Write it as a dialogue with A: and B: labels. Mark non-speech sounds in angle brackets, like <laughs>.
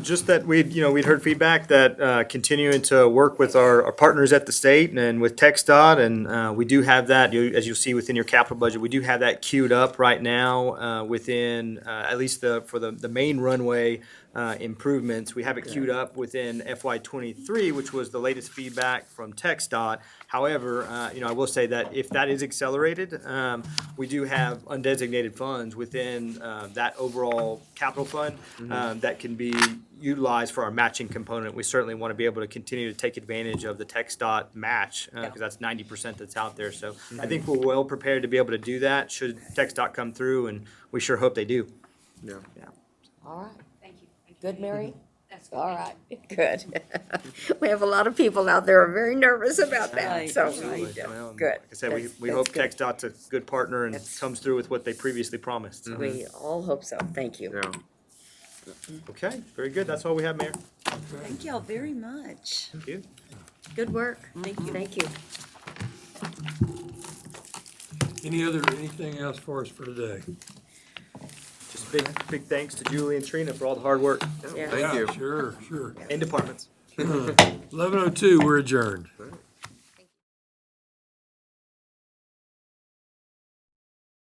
A: Just that we'd, you know, we'd heard feedback that uh, continuing to work with our our partners at the state and with TXDOT, and uh, we do have that, you- as you'll see within your capital budget, we do have that queued up right now uh, within, uh, at least the, for the, the main runway uh, improvements. We have it queued up within FY twenty-three, which was the latest feedback from TXDOT. However, uh, you know, I will say that if that is accelerated, um, we do have undesignated funds within uh, that overall capital fund
B: Mm-hmm.
A: um, that can be utilized for our matching component. We certainly want to be able to continue to take advantage of the text dot match because that's ninety percent that's out there. So
B: Mm-hmm.
A: I think we're well prepared to be able to do that should text dot come through, and we sure hope they do.
C: Yeah.
D: All right,
E: Thank you. Thank you.
D: good, Mary?
E: That's good.
D: All right,
B: Mm-hmm. <laughs> Good. We have a lot of people out there who are very nervous about that,
D: Right.
B: so,
A: Absolutely.
B: we-
A: Well, and
B: good.
A: Like I said, we,
B: That's-
A: we
B: that's
A: hope
B: good.
A: text dot's a good partner and
B: That's- Mm-hmm.
A: comes through with what they previously promised. So-
B: We all hope so, thank you.
C: Yeah.
A: Okay, very good. That's all we have, Mayor.
B: Thank y'all very much.
A: Thank you.
B: Good work. Thank you. Mm-hmm. Thank you.
F: Any other, anything else for us for today?
A: Just big, big thanks to Julie and Trina for all the hard work
B: Yeah.
C: Thank
F: Yeah,
C: you.
F: Sure, sure.
A: and departments.
F: Eleven oh two, we're adjourned.